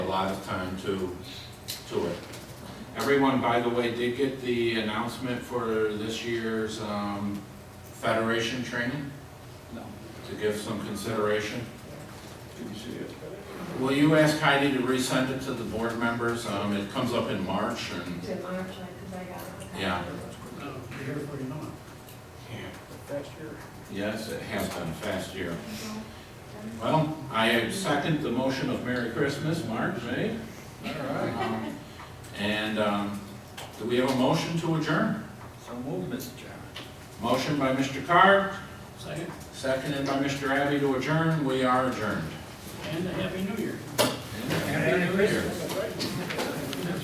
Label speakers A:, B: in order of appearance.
A: lot of time to, to it. Everyone, by the way, did get the announcement for this year's um, Federation training
B: No.
A: to give some consideration.
B: Didn't see it.
A: Will you ask Heidi to resend it to the board members? Um, It comes up in March and,
C: to March, like, 'cause I got.
A: Yeah.
D: No, Uh, we're here for you now.
A: yes, it has been fast year. Well, I second the motion of Merry Christmas, March, eh? All right. And um, do we have a motion to adjourn?
B: So move, Mr. Chairman.
A: Motion by Mr. Carr,
D: Second,
A: seconded by Mr. Abbey to adjourn. We are adjourned.
D: and a happy new year.
A: Happy New Year.